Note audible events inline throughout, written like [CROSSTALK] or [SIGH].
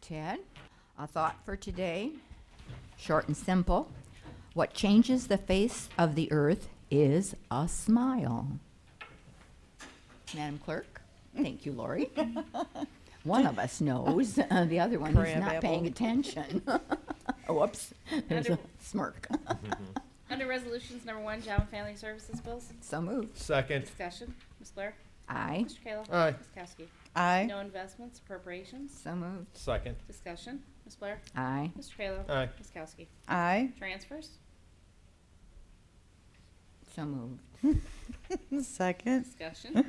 Ted. A thought for today, short and simple. What changes the face of the earth is a smile. Madam Clerk, thank you, Lori. One of us knows, uh, the other one is not paying Crabapple. attention. Whoops, there's a Under- smirk. Under Resolutions Number One, Job and Family Services Bills, So moved. Second. discussion, Ms. Blair, Aye, Mr. Kayla. Aye. Ms. Kowski. Aye. No investments, appropriations, so moved. Second. discussion, Ms. Blair, Aye, Mr. Kayla. Aye. Ms. Kowski. Aye. [LAUGHS] Transfers, so moved. Second. discussion,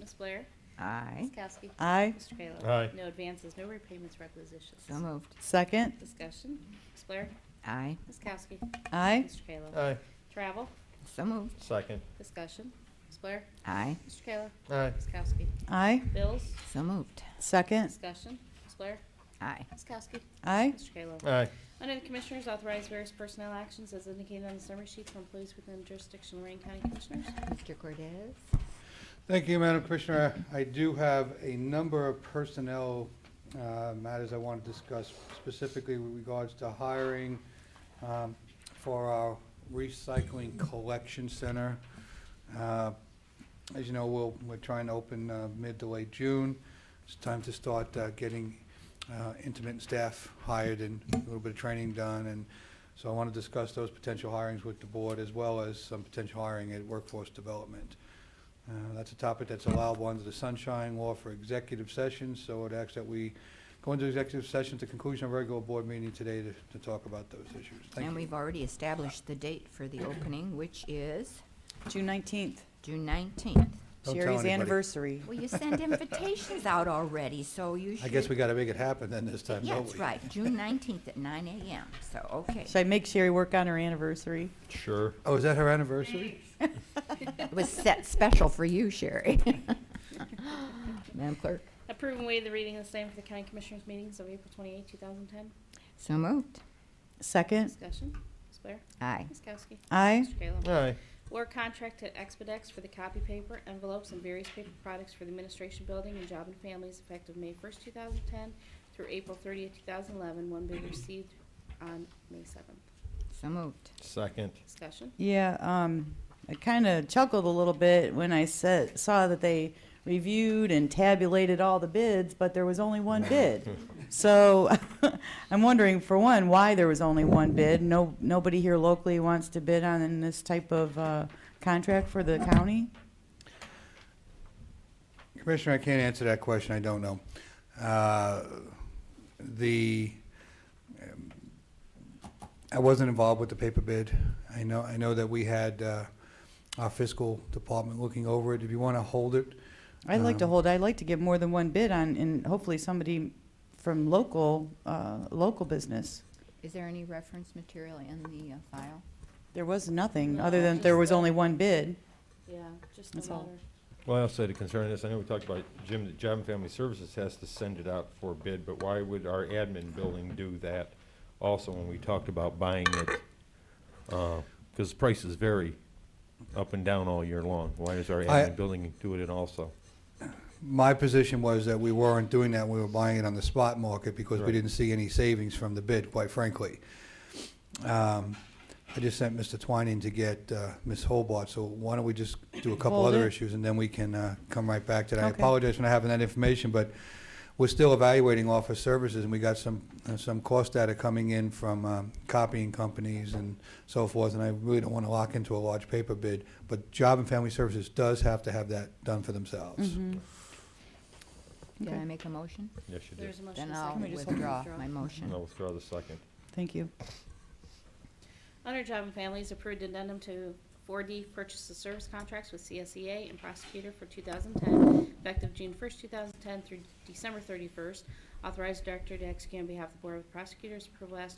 Ms. Blair, Aye, Ms. Kowski. Aye. Mr. Kayla. Aye. No advances, no repayments, requisitions. so moved. Second. Discussion, Ms. Blair, Aye, Ms. Kowski. Aye. Mr. Kayla. Aye. Travel, so moved. Second. discussion, Ms. Blair, Aye, Mr. Kayla. Aye. Ms. Kowski. Aye. Bills, so moved. Second. discussion, Ms. Blair, Aye, Ms. Kowski. Aye. Mr. Kayla. Aye. Under the Commissioners, authorize various personnel actions as indicated on the summary sheet for employees within the jurisdiction of Lorraine County Commissioners. Mr. Cordez? Thank you, Madam Commissioner. I do have a number of personnel uh, matters I want to discuss specifically with regards to hiring um, for our recycling collection center. Uh, As you know, we'll, we're trying to open uh, mid to late June. It's time to start uh, getting uh, intermittent staff hired and a little bit of training done. And so I want to discuss those potential hirings with the board as well as some potential hiring at workforce development. Uh, That's a topic that's allowable under the sunshine law for executive sessions, so I'd ask that we go into executive session at the conclusion of our regular board meeting today to, to talk about those issues. Thank And you. we've already established the date for the opening, which is June nineteenth. June nineteenth. Don't tell Sherry's anybody. anniversary. Well, you [LAUGHS] send invitations out already, so you should. I guess we gotta make it happen then this time, Yeah, don't we? that's right, June nineteenth at nine AM, so, okay. Should I make Sherry work on her anniversary? [LAUGHS] Sure. Oh, is that her anniversary? It was set special for you, [LAUGHS] Sherry. Madam Clerk? Approve and waive the reading of the same for the County Commissioners meetings of April 28, 2010. So moved. Second. Discussion, Ms. Blair, Aye. Ms. Kowski. Aye. Mr. Kayla. Aye. Award contract to Expedex for the copy paper, envelopes, and various paper products for the Administration Building and Job and Families effective May 1st, 2010 through April 30th, 2011, one bid received on May 7th. So moved. Second. Discussion, Yeah, um, I kind of chuckled a little bit when I said, saw that they reviewed and tabulated all the bids, but there was only one bid. [LAUGHS] So [LAUGHS] I'm wondering, for one, why there was only one bid? No, nobody here locally wants to bid on this type of, uh, contract for the county? Commissioner, I can't answer that question, I don't know. Uh, The, um, I wasn't involved with the paper bid. I know, I know that we had uh, our fiscal department looking over it. If you want to hold it, I'd like to Um, hold, I'd like to get more than one bid on, and hopefully somebody from local, uh, local business. Is there any reference material in the uh, file? There was nothing, No, other than just there was the- only one bid. yeah, just the That's all. letter. Well, I also had a concern on this. I know we talked about Jim, that Job and Family Services has to send it out for bid, but why would our admin building do that also when we talked about buying it? Because prices vary up and down all year long. Why does our I- admin building do it also? my position was that we weren't doing that, we were buying it on the spot market because we Right. didn't see any savings from the bid, quite frankly. Um, I just sent Mr. Twining to get uh, Ms. Hobart, so why don't we just do a couple Hold other it. issues and then we can uh, come right back to that. I Okay. apologize for not having that information, but we're still evaluating office services and we got some, uh, some cost data coming in from um, copying companies and so forth, and I really don't want to lock into a large paper bid, but Job and Family Services does have to have that done for themselves. Mm-hmm. Mm-hmm. Did I Okay. make a motion? Yes, you did. There's a motion Then second. I'll Can we just hold it? withdraw my motion. I'll withdraw the second. Thank you. Under Job and Families, approved addendum to 4D purchase of service contracts with CSEA and prosecutor for 2010, effective June 1st, 2010 through December 31st. Authorized director to execute on behalf of the Board of Prosecutors, approval as